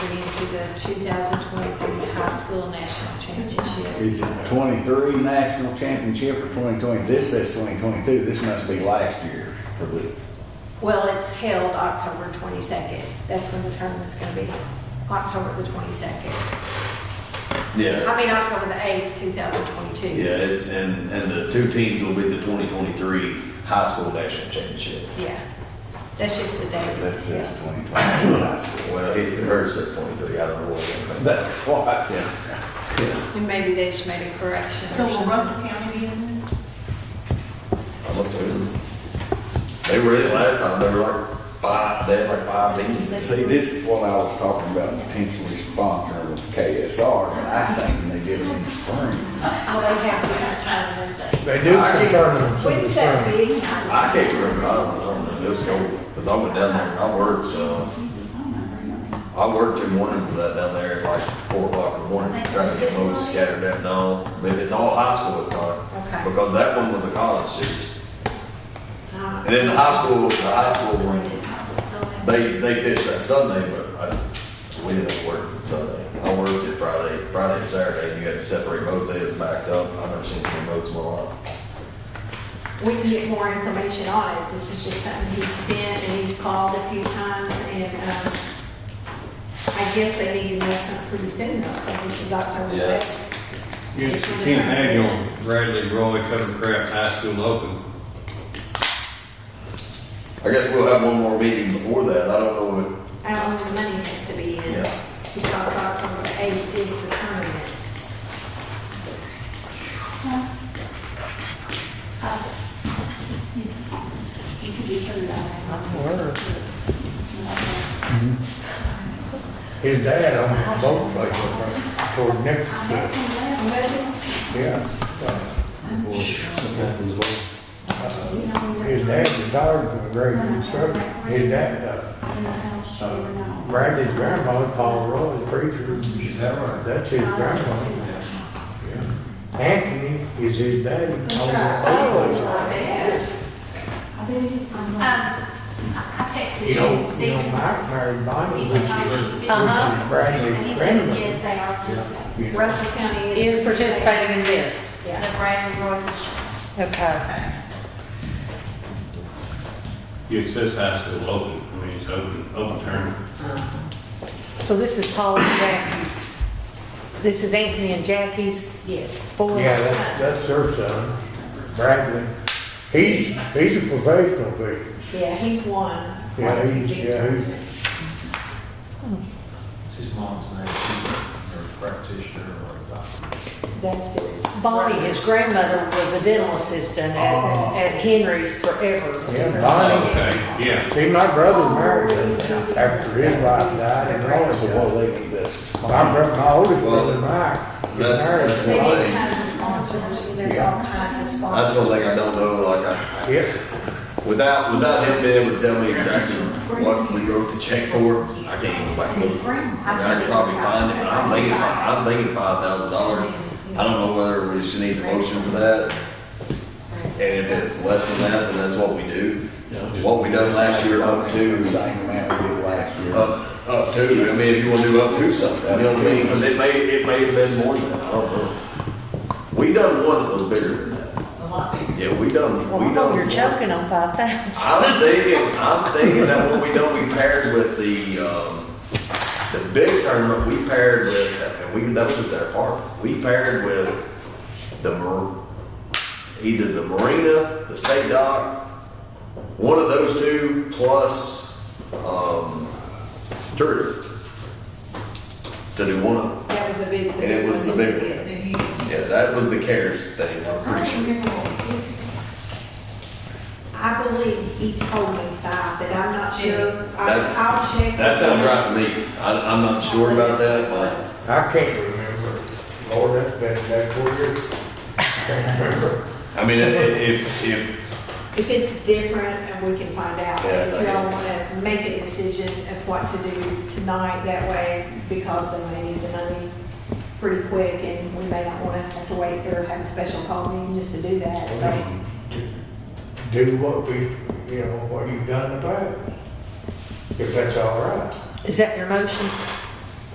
the 2023 High School National Championship. Is it twenty-three national championship or twenty-twenty? This says twenty-twenty-two, this must be last year for the, Well, it's held October 22nd. That's when the tournament's going to be, October the 22nd. Yeah, I mean, October the 8th, 2022. yeah, it's, and, and the two teams will be the twenty twenty-three high school national championship. Yeah. That's just the that says date. twenty-twenty-two high school. Well, he, hers says twenty-three, I don't know what. That's why, Yeah, And maybe they just made a correction or So will something. Russell County be in this? I'm assuming. They were in it last time, they were like five, they had like five teams in the see, season. this is what I was talking about, potentially sponsoring with KSR, and I think they did it in the spring. Well, they have to advertise it. They do some tournaments in the When's that spring. be? I can't remember, I don't, I don't know, it was cold, cause I went down there and I worked, uh, I worked in mornings of that down there at like four o'clock in the morning, trying to get most scattered down, no, if it's all high school, it's not. Okay. Because that one was a college series. Uh, And then the high school, the high school one, they, they finished that Sunday, but I, we didn't work on Sunday. I worked it Friday, Friday and Saturday, and you had to separate boats, they was backed up, I've never seen so many boats in my life. We can get more information on it. This is just something he's sent and he's called a few times and, um, I guess they need to know something pretty soon though, so this is October Yeah. eighth. Against Ken Agnew, Bradley Roy Covencraft High School Open. I guess we'll have one more meeting before that, I don't know what, I don't know when the money has to be in Yeah. because October eighth is the tournament. You could be sure that. Word. His dad owned a boat place up there toward Nicholsville. Yeah. Uh, His dad retired from the Great Service. His dad, uh, Bradley's grandmother, Paul Roy, is a preacher. Is that right? That's his grandmother. Yeah. Anthony is his daddy. Owned that Oh. Um, boat place. I texted You know, James you know, Mike married Bonnie, which is Uh-huh. And he Bradley's said, grandmother. yes, they are participating. Yeah. Russell County is. Is participating in this. The Brandon Roy Fisher. Okay. It says high school open, I mean, it's open, open tournament. So this is Paul and Jackie's. This is Anthony and Jackie's Yes. boys. Yeah, that's, that's her son, Bradley. He's, he's a professional fish. Yeah, he's won. Yeah, he's, yeah, he's, It's his mom's name, she's a nurse practitioner or a doctor. That's his. Bonnie, his grandmother, was a dental assistant at, at Henry's forever. Oh. yeah, Bonnie. Okay, yeah. See, my brother married her after his wife died and all So that. what they do this. My brother, my oldest brother, Mike. he That's- married that's They her. need tons of sponsors. There's all kinds of that's sponsors. one thing I don't know, like, I, Yeah, without, without him being able to tell me exactly what we wrote the check for, I can't even go back and look. I mean, I could probably find it, but I'm thinking, I'm thinking five thousand dollars. I don't know whether we should need a motion for that. And if it's less than that, then that's what we do. What we done last year up The to, Same amount we did last year. up, up to, I mean, if you wanna do up to something, you know what I mean? Cause it may, it may have been more than that, I don't know. We done one that was bigger than that. A lot bigger. Yeah, we done, we Well, I done. know you're one. choking on five thousand. I'm thinking, I'm thinking that what we done, we paired with the, um, the big tournament, we paired with, and we, that was just their part. We paired with the, mar- either the marina, the state dock, one of those two plus, um, tourism. To do one of them. That was a big. And it was the big one. Then you- Yeah, that was the CARES thing, I'm I pretty don't sure. remember what we did. I believe he told me five, but I'm not sure. I- That- I'll check. That sounds right to me. I, I'm not sure about that, but. I can't remember. Lord, that's been that four years. Can't remember. I mean, i- i- if, if, If it's different and we can find out, Yeah, if I y'all guess. want to make a decision of what to do tonight that way, because they may need the money pretty quick and we may not want to have to wait or have a special call meeting just to do that, so. Do what we, you know, what you've done in the past. If that's all right. Is that your motion?